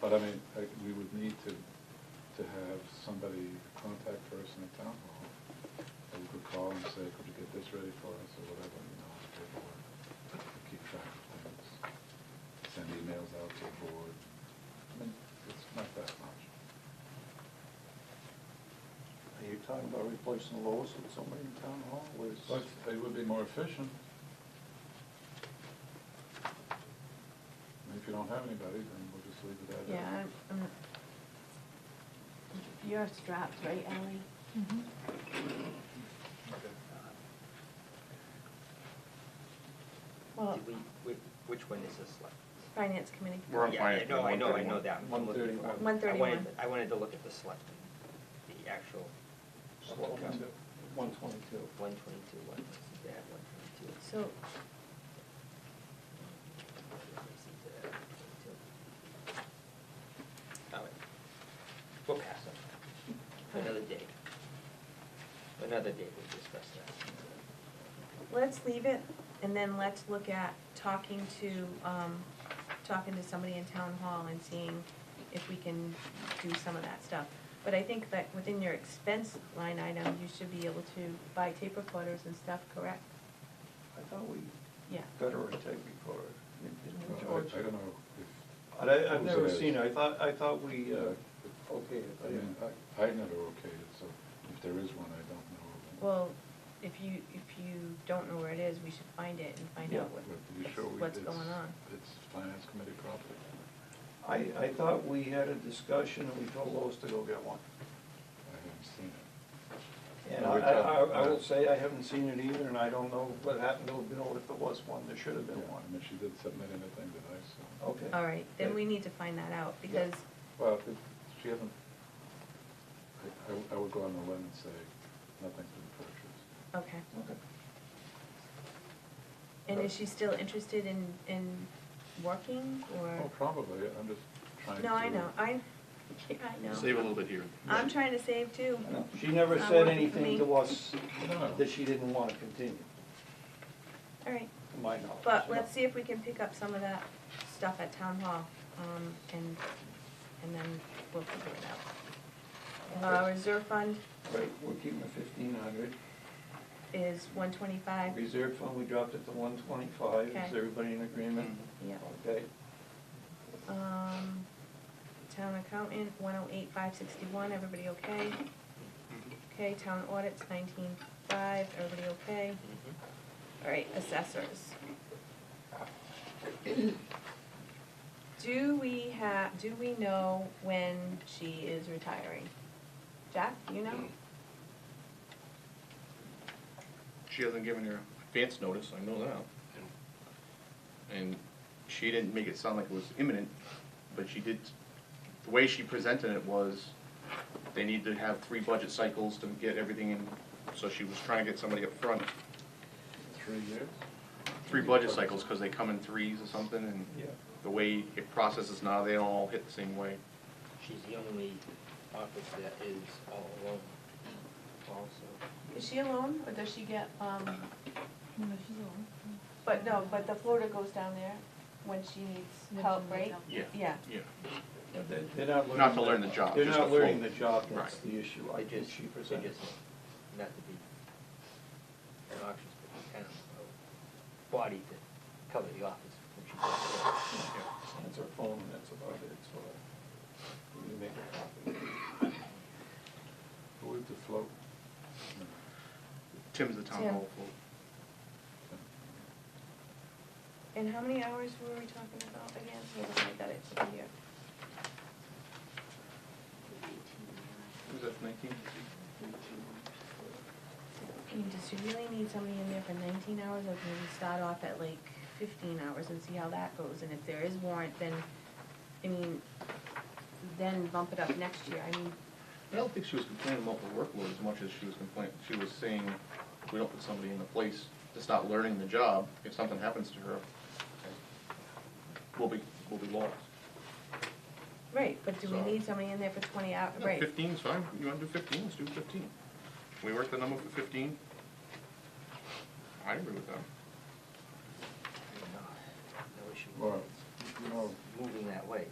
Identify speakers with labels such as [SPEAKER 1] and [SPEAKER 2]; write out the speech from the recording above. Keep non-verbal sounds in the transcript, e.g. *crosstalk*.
[SPEAKER 1] But I mean, I, we would need to, to have somebody contact first in the town hall. And we could call and say, could you get this ready for us or whatever, you know, it's paperwork. We Keep track of things. Send emails out to the board. I mean, it's not that much.
[SPEAKER 2] Are you talking about replacing Lois with somebody in town hall, where's?
[SPEAKER 1] But it would be more efficient. And if you don't have anybody, then we'll just leave it at that.
[SPEAKER 3] Yeah, I'm- I'm- yours dropped, right, Ally? Well,
[SPEAKER 4] Did we, which, which one is this like?
[SPEAKER 3] Finance Committee.
[SPEAKER 5] We're on
[SPEAKER 4] Yeah, I
[SPEAKER 5] finance,
[SPEAKER 4] know, I know, I
[SPEAKER 5] 131.
[SPEAKER 4] know that. I'm looking for-
[SPEAKER 2] 131.
[SPEAKER 3] 131.
[SPEAKER 4] I wanted, I wanted to look at the select, the actual
[SPEAKER 2] One twenty-two.
[SPEAKER 4] one twenty-two, one, yeah, one twenty-two.
[SPEAKER 3] So,
[SPEAKER 4] All right. We'll pass on that. Another day. Another day we'll discuss that.
[SPEAKER 3] let's leave it, and then let's look at talking to, um, talking to somebody in town hall and seeing if we can do some of that stuff. But I think that within your expense line item, you should be able to buy tape recorders and stuff, correct?
[SPEAKER 2] I thought we
[SPEAKER 3] Yeah.
[SPEAKER 2] got her a tape recorder. Didn't we,
[SPEAKER 1] Well,
[SPEAKER 2] George?
[SPEAKER 1] Uh, I I don't know
[SPEAKER 2] I,
[SPEAKER 1] if.
[SPEAKER 2] I've
[SPEAKER 1] who's
[SPEAKER 2] never
[SPEAKER 1] that is.
[SPEAKER 2] seen it, I thought, I thought we, uh,
[SPEAKER 1] Yeah.
[SPEAKER 2] okayed it.
[SPEAKER 1] I mean, I, I never okayed it, so if there is one, I don't know. of it.
[SPEAKER 3] Well, if you, if you don't know where it is, we should find it and find out
[SPEAKER 1] But
[SPEAKER 3] what,
[SPEAKER 1] are you sure we-
[SPEAKER 3] what's
[SPEAKER 1] it's-
[SPEAKER 3] going on.
[SPEAKER 1] It's finance committee property.
[SPEAKER 2] I, I thought we had a discussion and we told Lois to go get one.
[SPEAKER 1] I haven't seen it.
[SPEAKER 2] And
[SPEAKER 1] Oh,
[SPEAKER 2] I,
[SPEAKER 1] we
[SPEAKER 2] I,
[SPEAKER 1] talked-
[SPEAKER 2] I will say, I haven't seen it either, and I don't know what happened to it, Bill, if there was one, there should have been
[SPEAKER 1] Yeah,
[SPEAKER 2] one.
[SPEAKER 1] I mean, she did submit anything that I saw.
[SPEAKER 2] Okay.
[SPEAKER 3] All right, then
[SPEAKER 2] Okay.
[SPEAKER 3] we need to find that out, because,
[SPEAKER 1] Well, it- she hasn't, I- I, would- I would go on the limb and say, nothing's been purchased.
[SPEAKER 3] okay.
[SPEAKER 2] Okay.
[SPEAKER 3] And is she still interested in, in working,
[SPEAKER 1] Oh,
[SPEAKER 3] or?
[SPEAKER 1] probably, I'm just trying to.
[SPEAKER 3] No, I know, I, *laughs* yeah, I know.
[SPEAKER 5] Save a little bit here.
[SPEAKER 3] I'm trying to save too.
[SPEAKER 2] I know. She never
[SPEAKER 3] Not
[SPEAKER 2] said
[SPEAKER 3] working for me.
[SPEAKER 2] anything to us
[SPEAKER 1] No.
[SPEAKER 2] that she didn't want to continue,
[SPEAKER 3] All right,
[SPEAKER 2] to my knowledge.
[SPEAKER 3] but let's see if we can pick up some of that stuff at town hall, um, and, and then we'll figure it out. Uh,
[SPEAKER 2] Okay.
[SPEAKER 3] reserve fund
[SPEAKER 2] Right, we're keeping the fifteen hundred.
[SPEAKER 3] is one twenty-five,
[SPEAKER 2] Reserve fund, we dropped it to one twenty-five.
[SPEAKER 3] Okay.
[SPEAKER 2] Is everybody in agreement?
[SPEAKER 3] yeah.
[SPEAKER 2] Okay.
[SPEAKER 3] Um, town accountant, one oh eight, five sixty-one, everybody okay? Okay, town audits, nineteen five, everybody okay?
[SPEAKER 4] Mm-hmm.
[SPEAKER 3] All right, assessors. Do we have, do we know when she is retiring? Jack, you know?
[SPEAKER 5] She hasn't given her advance notice, I know that. And she didn't make it sound like it was imminent, but she did, the way she presented it was, they need to have three budget cycles to get everything in, so she was trying to get somebody up front.
[SPEAKER 1] Three years?
[SPEAKER 5] Three budget cycles, because they come in threes or something, and
[SPEAKER 2] Yeah.
[SPEAKER 5] the way it processes now, they don't all hit the same way.
[SPEAKER 4] She's the only office that is all alone also.
[SPEAKER 3] Is she alone, or does she get, um? No, she's alone. But no, but the floater goes down there when she needs help, right?
[SPEAKER 5] Yeah.
[SPEAKER 3] Yeah.
[SPEAKER 5] Yeah.
[SPEAKER 2] But they- They're not learning.
[SPEAKER 5] Not to learn the job,
[SPEAKER 2] They're
[SPEAKER 5] just
[SPEAKER 2] not
[SPEAKER 5] the full-
[SPEAKER 2] learning the job, that's
[SPEAKER 5] Right.
[SPEAKER 2] the issue. I
[SPEAKER 4] They
[SPEAKER 2] think
[SPEAKER 4] just,
[SPEAKER 2] she
[SPEAKER 4] they
[SPEAKER 2] presented.
[SPEAKER 4] just, not to be obnoxious, but they kind of body to cover the office when she goes there.
[SPEAKER 2] That's her phone, and that's about it, so we can make a copy.
[SPEAKER 1] Who is the float? No.
[SPEAKER 5] Tim's the town
[SPEAKER 3] Tim.
[SPEAKER 5] hall float.
[SPEAKER 3] And how many hours were we talking about again? Hold on, I got it here.
[SPEAKER 5] Was that nineteen?
[SPEAKER 3] I mean, does she really need somebody in there for nineteen hours, or can we start off at like fifteen hours and see how that goes? And if there is warrant, then, I mean, then bump it up next year, I mean,
[SPEAKER 5] I don't think she was complaining about the workload as much as she was complaining, she was saying, we don't put somebody in the place that's not learning the job, if something happens to her, we'll be, we'll be lost.
[SPEAKER 3] right, but do we
[SPEAKER 5] So-
[SPEAKER 3] need somebody in there for twenty hours,
[SPEAKER 5] No,
[SPEAKER 3] Uh, right?
[SPEAKER 5] Fifteen's fine, you wanna do fifteen, let's do fifteen. We work the number for fifteen. I agree with that.
[SPEAKER 4] No, No issue.
[SPEAKER 1] Well,
[SPEAKER 4] with
[SPEAKER 1] you know,
[SPEAKER 4] Moving that way.